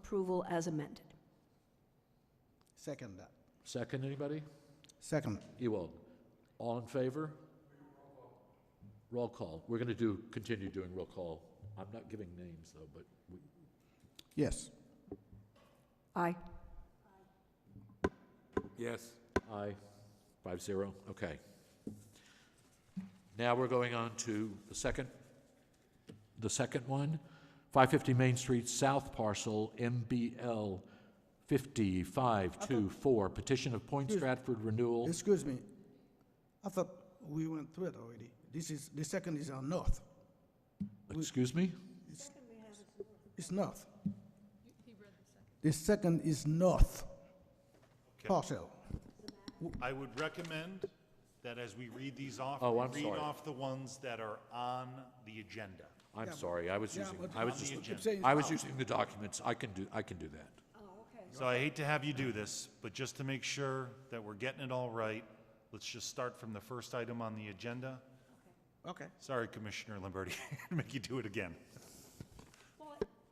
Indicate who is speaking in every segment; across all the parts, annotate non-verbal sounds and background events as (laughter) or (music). Speaker 1: approval as amended.
Speaker 2: Second that.
Speaker 3: Second, anybody?
Speaker 2: Second.
Speaker 3: Ewald, all in favor? Roll call. We're going to do, continue doing roll call. I'm not giving names, though, but we-
Speaker 2: Yes.
Speaker 1: Aye.
Speaker 4: Yes.
Speaker 3: aye, five zero, okay. Now we're going on to the second, the second one, 550 Main Street South Parcel, MBL 5524, petition of Point Stratford Renewal.
Speaker 2: Excuse me. I thought we went through it already. This is, the second is on north.
Speaker 3: Excuse me?
Speaker 2: It's north. The second is north
Speaker 5: Okay.
Speaker 2: parcel.
Speaker 5: I would recommend that as we read these off,
Speaker 3: Oh, I'm
Speaker 5: we read
Speaker 3: sorry.
Speaker 5: off the ones that are on the agenda.
Speaker 3: I'm sorry, I was
Speaker 2: Yeah,
Speaker 3: using,
Speaker 2: but
Speaker 3: I was
Speaker 5: on the
Speaker 3: just,
Speaker 5: agenda.
Speaker 2: Keep saying
Speaker 3: I
Speaker 2: it's
Speaker 3: was
Speaker 2: north.
Speaker 3: using the documents. I can do, I can do that.
Speaker 1: Oh,
Speaker 5: So I hate to have you do this, but just to make sure that we're getting it all right, let's just start from the first item on the agenda.
Speaker 2: Okay.
Speaker 5: Sorry, Commissioner (laughs) Lamberti, make you do it again.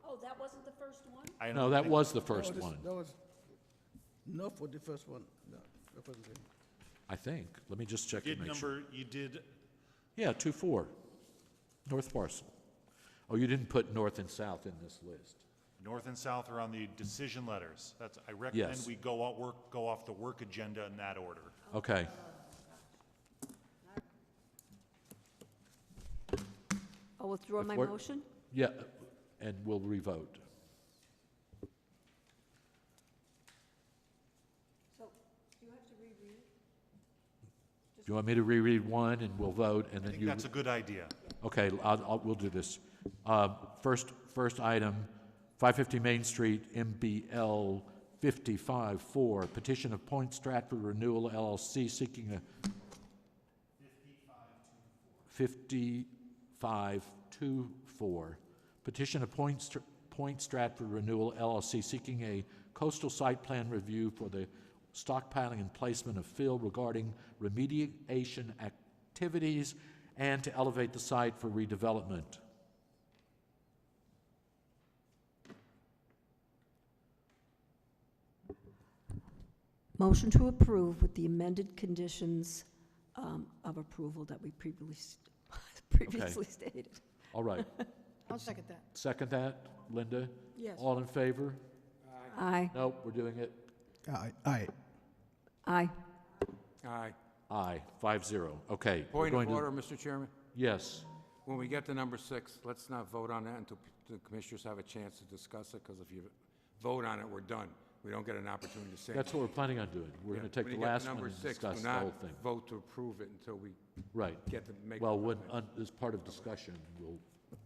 Speaker 1: Oh, that wasn't the first one?
Speaker 5: I
Speaker 3: No,
Speaker 5: don't
Speaker 3: that
Speaker 5: think-
Speaker 3: was the
Speaker 2: That
Speaker 3: first
Speaker 2: was-
Speaker 3: one,
Speaker 2: That was north for the first one. No, that wasn't it.
Speaker 3: I think. Let me just check and
Speaker 5: Did
Speaker 3: make sure.
Speaker 5: number, you did,
Speaker 3: Yeah, two, four, north parcel. Oh, you didn't put north and south in this list.
Speaker 5: north and south are on the decision letters. That's, I recommend
Speaker 3: Yes.
Speaker 5: we go out, work, go off the work agenda in that order.
Speaker 3: Okay.
Speaker 1: I'll withdraw
Speaker 3: If
Speaker 1: my
Speaker 3: we're-
Speaker 1: motion.
Speaker 3: Yeah, and we'll revote.
Speaker 1: So you have to reread?
Speaker 3: Do you want me to reread one and we'll vote and
Speaker 5: I
Speaker 3: then
Speaker 5: think
Speaker 3: you?
Speaker 5: that's a good idea.
Speaker 3: Okay, I'll, I'll, we'll do this. Uh, first, first item, 550 Main Street, MBL 55-4, petition of Point Stratford Renewal LLC seeking a... 5524, petition of Point Str- Point Stratford Renewal LLC seeking a coastal site plan review for the stockpiling and placement of fill regarding remediation activities and to elevate the site for redevelopment.
Speaker 1: Motion to approve with the amended conditions um, of approval that we previously, (laughs) previously stated.
Speaker 3: All right,
Speaker 6: (laughs) I'll second that.
Speaker 3: second that, Linda?
Speaker 6: Yes.
Speaker 3: All in favor?
Speaker 1: Aye.
Speaker 3: Nope, we're doing it.
Speaker 2: Aye, aye.
Speaker 1: Aye.
Speaker 4: Aye.
Speaker 3: Aye, five zero, okay. we're
Speaker 4: Point
Speaker 3: going
Speaker 4: of
Speaker 3: to-
Speaker 4: order, Mr. Chairman.
Speaker 3: Yes,
Speaker 4: When we get to number six, let's not vote on that until the commissioners have a chance to discuss it, because if you vote on it, we're done. We don't get an opportunity to say.
Speaker 3: that's what we're planning on doing. We're going to take the last one and discuss the whole
Speaker 4: Number
Speaker 3: thing.
Speaker 4: six, do not vote to approve it until we
Speaker 3: Right.
Speaker 4: get to make.
Speaker 3: Well, when, un- as part of discussion, we'll,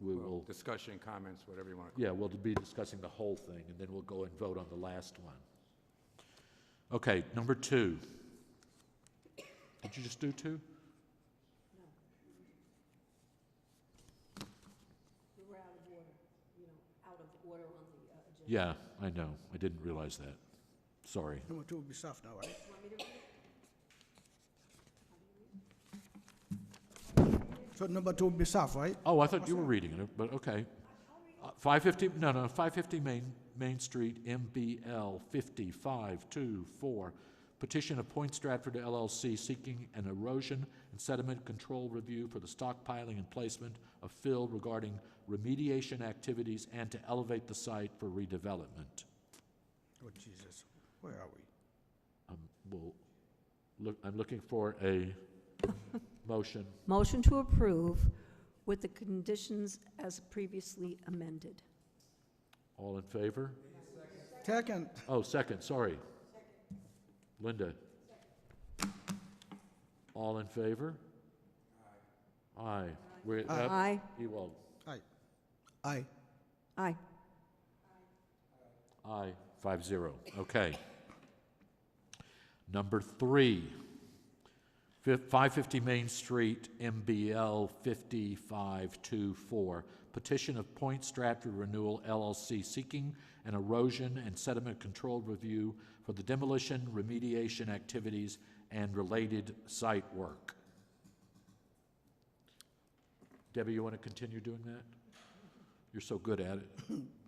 Speaker 3: we will,
Speaker 4: Discussion, comments, whatever you want to
Speaker 3: yeah, we'll be discussing the whole thing, and then we'll go and vote on the last one. Okay, number two. Did you just do two?
Speaker 1: uh,
Speaker 3: We were out of order, you know, out of order on the agenda. Yeah, I know. I didn't realize that. Sorry.
Speaker 2: Number two will be soft now, right? So number two will be soft, right?
Speaker 3: Oh, I thought you were reading it, but okay. Uh, 550, no, no, 550 Main, Main Street, MBL 5524. Petition of Point Stratford LLC seeking an erosion and sediment control review for the stockpiling and placement of fill regarding remediation activities and to elevate the site for redevelopment.
Speaker 2: Oh, Jesus, where are we?
Speaker 3: Um, we'll, look, I'm looking for a (laughs) motion.
Speaker 1: Motion to approve with the conditions as previously amended.
Speaker 3: All in favor?
Speaker 2: Second,
Speaker 3: Oh, second, sorry. Linda? All in favor? Aye. We're, uh,
Speaker 1: Aye.
Speaker 3: Ewald,
Speaker 2: aye. Aye.
Speaker 1: Aye.
Speaker 3: aye, five zero, okay. Number three, five fifty Main Street, MBL fifty-five two four. Petition of Point Stratford Renewal LLC seeking an erosion and sediment control review for the demolition, remediation activities, and related site work. Debbie, you want to continue doing that? You're so good at it.